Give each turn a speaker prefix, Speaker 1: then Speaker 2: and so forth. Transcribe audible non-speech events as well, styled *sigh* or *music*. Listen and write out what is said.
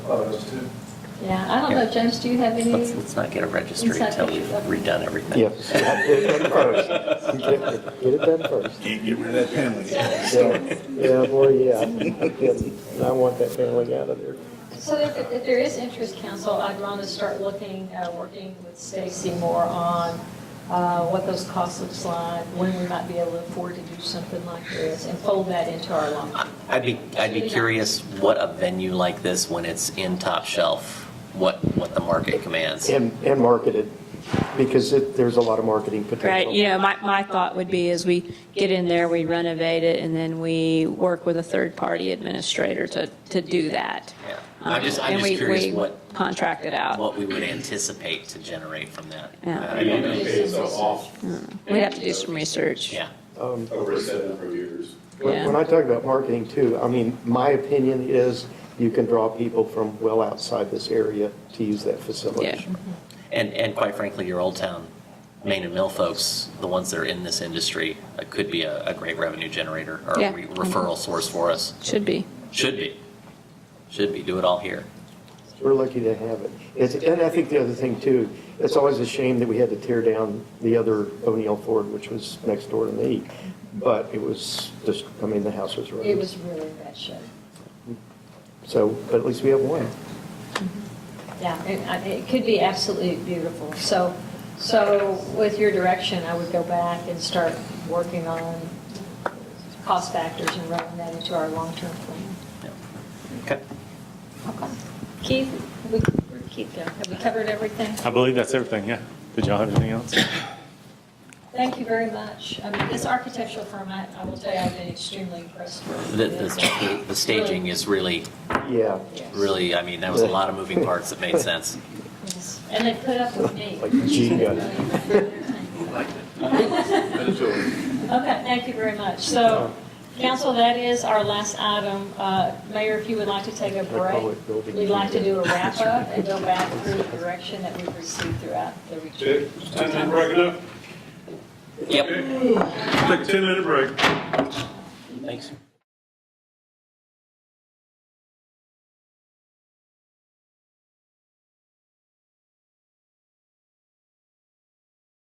Speaker 1: thought it was two.
Speaker 2: Yeah, I don't know, James, do you have any?
Speaker 3: Let's, let's not get a registry
Speaker 2: Inside
Speaker 3: until we've
Speaker 2: pictures of-
Speaker 3: redone everything.
Speaker 4: Yep. Get it done first. Get- Get it done first.
Speaker 5: Can't get rid of that
Speaker 4: *laughs*
Speaker 5: penalty.
Speaker 4: Yeah, Yeah, boy, yeah. I couldn't. And I want that family out of there.
Speaker 2: So if, if there is interest, council, I'd want to start looking, uh, working with Stacy more on, uh, what those costs looks like, when we might be able to afford to do something like this, and fold that into our long.
Speaker 3: I'd be, I'd be curious what a venue like this, when it's in top shelf, what, what the market commands.
Speaker 4: And, and market it, because it, there's a lot of marketing potential.
Speaker 6: Right, you know, my, my thought would be is we get in there, we renovate it, and then we work with a third-party administrator to, to do that.
Speaker 3: Yeah. I'm just- I'm
Speaker 6: Um, and
Speaker 3: just
Speaker 6: we-
Speaker 3: curious
Speaker 6: we
Speaker 3: what-
Speaker 6: Contract it out.
Speaker 3: What we would anticipate to generate from that.
Speaker 6: Yeah.
Speaker 3: I don't know.
Speaker 2: It's
Speaker 6: We'd have to do some research.
Speaker 3: Yeah.
Speaker 7: over a set number of years.
Speaker 6: Yeah.
Speaker 4: When when I talk about marketing too, I mean, my opinion is you can draw people from well outside this area to use that facility.
Speaker 6: Yeah.
Speaker 3: And, and quite frankly, your Old Town, Main and Mill folks, the ones that are in this industry, uh, could be a, a great revenue generator or
Speaker 6: Yeah.
Speaker 3: re- referral source for us.
Speaker 6: Should be.
Speaker 3: Should be. Should be. Do it all here.
Speaker 4: We're lucky to have it. It's- And I think the other thing too, it's always a shame that we had to tear down the other O'Neill Ford, which was next door to me. But it was just, I mean, the house was
Speaker 2: It
Speaker 4: ruined.
Speaker 2: was really in bad shape.
Speaker 4: So, but at least we have one.
Speaker 2: Yeah, and I- it could be absolutely beautiful. So, so with your direction, I would go back and start working on cost factors and running that into our long-term plan.
Speaker 3: Yeah. Okay.
Speaker 2: Okay. Keith, we, where'd Keith go? Have we covered everything?
Speaker 8: I believe that's everything, yeah. Did y'all have anything else?
Speaker 2: Thank you very much. I mean, this architectural firm, I, I will tell you, I've been extremely impressed with.
Speaker 3: The, the, the staging is really,
Speaker 4: Yeah.
Speaker 2: Yes.
Speaker 3: really, I mean, that was a lot of moving parts that made sense.
Speaker 2: Yes. And they put up with me.
Speaker 4: Like G
Speaker 2: Okay, thank you very much. So, council, that is our last item. Uh, Mayor, if you would like to take a break,
Speaker 4: Public building.
Speaker 2: we'd like to do a wrap-up and go back through the direction that we've received throughout the retreat.
Speaker 7: It's time to break it up.
Speaker 3: Yep.
Speaker 7: Take a 10-minute break.
Speaker 3: Thanks.